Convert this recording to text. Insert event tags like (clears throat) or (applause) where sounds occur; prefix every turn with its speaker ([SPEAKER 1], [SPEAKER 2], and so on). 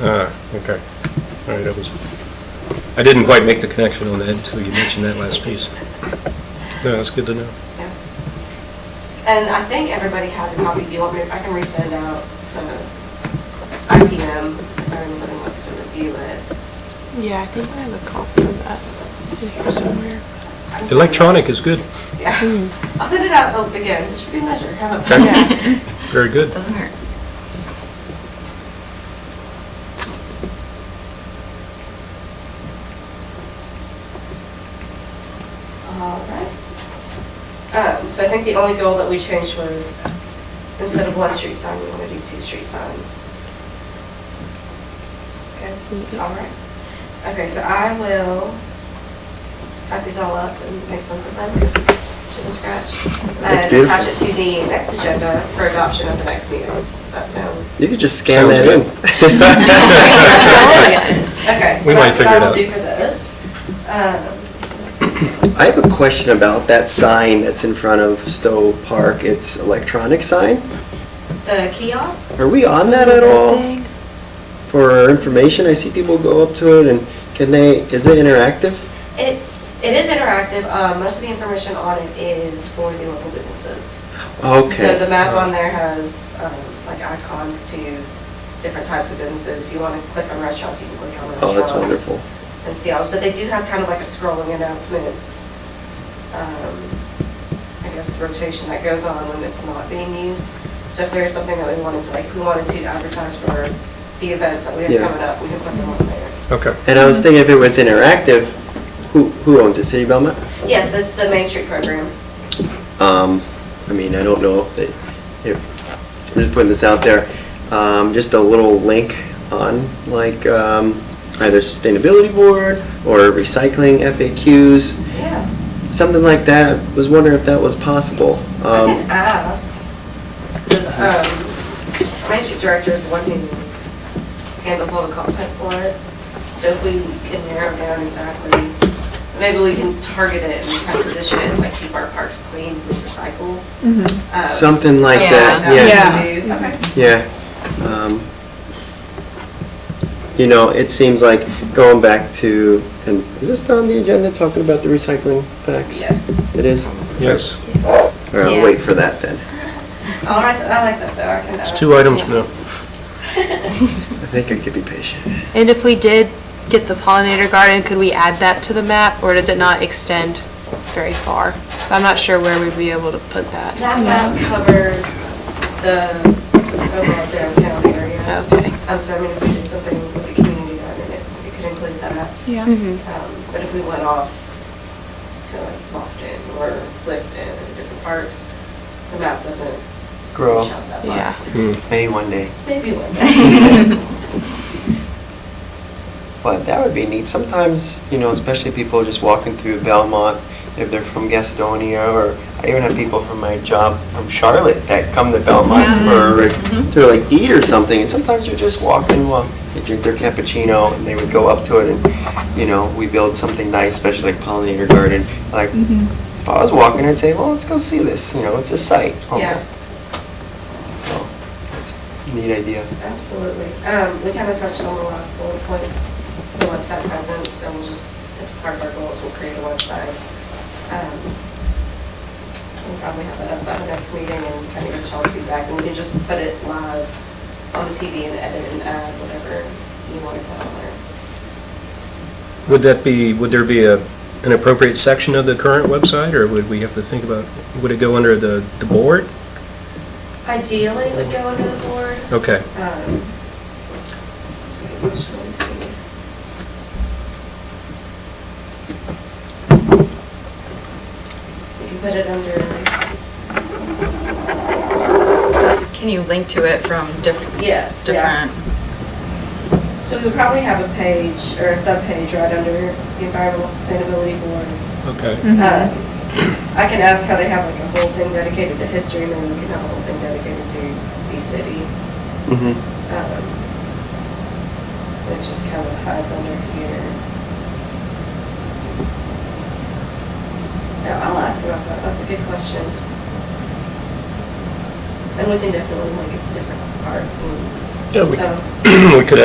[SPEAKER 1] Ah, okay. All right, that was, I didn't quite make the connection on that until you mentioned that last piece. No, that's good to know.
[SPEAKER 2] Yeah. And I think everybody has a copy. Do you want me, I can resend out the IPM if anybody wants to review it.
[SPEAKER 3] Yeah, I think I have a copy of that in here somewhere.
[SPEAKER 2] I can send it out.
[SPEAKER 1] Electronic is good,
[SPEAKER 2] Yeah. I'll send it out uh, again, just for good measure. Have (laughs)
[SPEAKER 1] Okay.
[SPEAKER 2] a.
[SPEAKER 3] Yeah.
[SPEAKER 1] very good.
[SPEAKER 4] Doesn't hurt.
[SPEAKER 2] All right. Um, So I think the only goal that we changed was instead of one street sign, we want to do two street signs. Okay,
[SPEAKER 3] Mhm.
[SPEAKER 2] all right. Okay, so I will type these all up and make sense of them because it's chicken scratch. And
[SPEAKER 5] beautiful.
[SPEAKER 2] attach it to the next agenda for adoption at the next meeting. Does
[SPEAKER 1] (laughs)
[SPEAKER 2] that sound? (laughs)
[SPEAKER 5] You could just scan
[SPEAKER 1] Sounds
[SPEAKER 5] that
[SPEAKER 1] good.
[SPEAKER 5] in.
[SPEAKER 2] (laughs) Okay, so
[SPEAKER 1] We might
[SPEAKER 2] that's what
[SPEAKER 1] figure
[SPEAKER 2] I
[SPEAKER 1] it
[SPEAKER 2] will
[SPEAKER 1] out.
[SPEAKER 2] do for this. Um, let's see.
[SPEAKER 5] I have a question about that sign that's in front of Stowe Park. It's electronic sign.
[SPEAKER 2] The kiosks?
[SPEAKER 5] Are we on that at all for information? I see people go up to it and can they, is it interactive?
[SPEAKER 2] It's, it is interactive. Uh, Most of the information on it is for the local businesses. So the
[SPEAKER 5] Okay.
[SPEAKER 2] map on there has um, like icons to different types of businesses. If you want to click on restaurants, you can click on restaurants.
[SPEAKER 5] Oh, that's wonderful.
[SPEAKER 2] And see all this. But they do have kind of like a scrolling announcements, um, I guess, rotation that goes on when it's not being used. So if there is something that we wanted to, like, we wanted to advertise for the events that we have
[SPEAKER 5] Yeah.
[SPEAKER 2] coming up, we can put them on there.
[SPEAKER 1] Okay.
[SPEAKER 5] And I was thinking if it was interactive, who, who owns it? City of Belmont?
[SPEAKER 2] Yes, that's the Main Street program.
[SPEAKER 5] Um, I mean, I don't know if, they- if, I'm just putting this out there, um, just a little link on like, um, either sustainability board or recycling FAQs,
[SPEAKER 2] Yeah.
[SPEAKER 5] something like that. Was wondering if that was possible.
[SPEAKER 2] I
[SPEAKER 5] Um,
[SPEAKER 2] can ask, because, um, my street director is the one who handles all the content for it. So if we can narrow down exactly, maybe we can target it and kind of position it as like keep our parks clean, recycle. Um,
[SPEAKER 5] Something like
[SPEAKER 2] something
[SPEAKER 5] that, yeah.
[SPEAKER 2] we can do. Okay.
[SPEAKER 5] Yeah. um, You know, it seems like going back to, and is this on the agenda, talking about the recycling facts?
[SPEAKER 2] Yes.
[SPEAKER 5] It is?
[SPEAKER 1] Yes,
[SPEAKER 5] All right, I'll
[SPEAKER 4] Yeah.
[SPEAKER 5] wait for that then.
[SPEAKER 2] All right, I like that though, I can ask.
[SPEAKER 1] it's two items now.
[SPEAKER 5] I think I could be patient.
[SPEAKER 3] And if we did get the pollinator garden, could we add that to the map, or does it not extend very far? So I'm not sure where we'd be able to put that.
[SPEAKER 2] That map covers the overall downtown area.
[SPEAKER 3] Okay.
[SPEAKER 2] Um, so I mean, if we did something with the community garden, it it could include that.
[SPEAKER 3] Mm-hmm.
[SPEAKER 6] Yeah.
[SPEAKER 2] Um, But if we went off to like Lofton or Clifton or different parts, the map doesn't
[SPEAKER 5] Grow.
[SPEAKER 2] reach out that far.
[SPEAKER 3] Yeah.
[SPEAKER 1] Hmm.
[SPEAKER 5] Maybe one day.
[SPEAKER 2] Maybe one
[SPEAKER 3] (laughs)
[SPEAKER 2] day.
[SPEAKER 5] But that would be neat. Sometimes, you know, especially people just walking through Belmont, if they're from Gastonia, or I even have people from my job from Charlotte that come to Belmont for to like eat or something. And sometimes you're just walking, well, they drink their cappuccino, and they would go up to it, and you know, we build something nice, especially like pollinator garden. Like
[SPEAKER 3] Mm-hmm.
[SPEAKER 5] if I was walking, I'd say, well, let's go see this. You know, it's a site
[SPEAKER 2] Yeah.
[SPEAKER 5] almost. So it's a neat idea.
[SPEAKER 2] Absolutely. Um, we kind of touched on the last bullet point, the website presence, so we'll just, as part of our goals, we'll create a website. Um, We'll probably have that up by the next meeting and kind of get y'all's feedback, and we can just put it live on the TV and edit and add whatever you want to put on there.
[SPEAKER 1] Would that be, would there be a, an appropriate section of the current website, or would we have to think about, would it go under the, the board?
[SPEAKER 2] Ideally, it would go under the board.
[SPEAKER 1] Okay,
[SPEAKER 2] Um, so you must really see. You can put it under,
[SPEAKER 4] Can you link to it from different?
[SPEAKER 2] Yes, yeah.
[SPEAKER 4] Different.
[SPEAKER 2] so we would probably have a page or a sub-page right under the environmental sustainability board.
[SPEAKER 1] okay.
[SPEAKER 2] Uh, I can ask how they have like a whole thing dedicated to history, and then we can have a whole thing dedicated to the city.
[SPEAKER 5] Mm-hmm.
[SPEAKER 2] Um, It just kind of hides under here. So I'll ask about that, that's a good question. And we can definitely link it to different parts and
[SPEAKER 1] Yeah,
[SPEAKER 2] so.
[SPEAKER 1] (clears throat) we- We could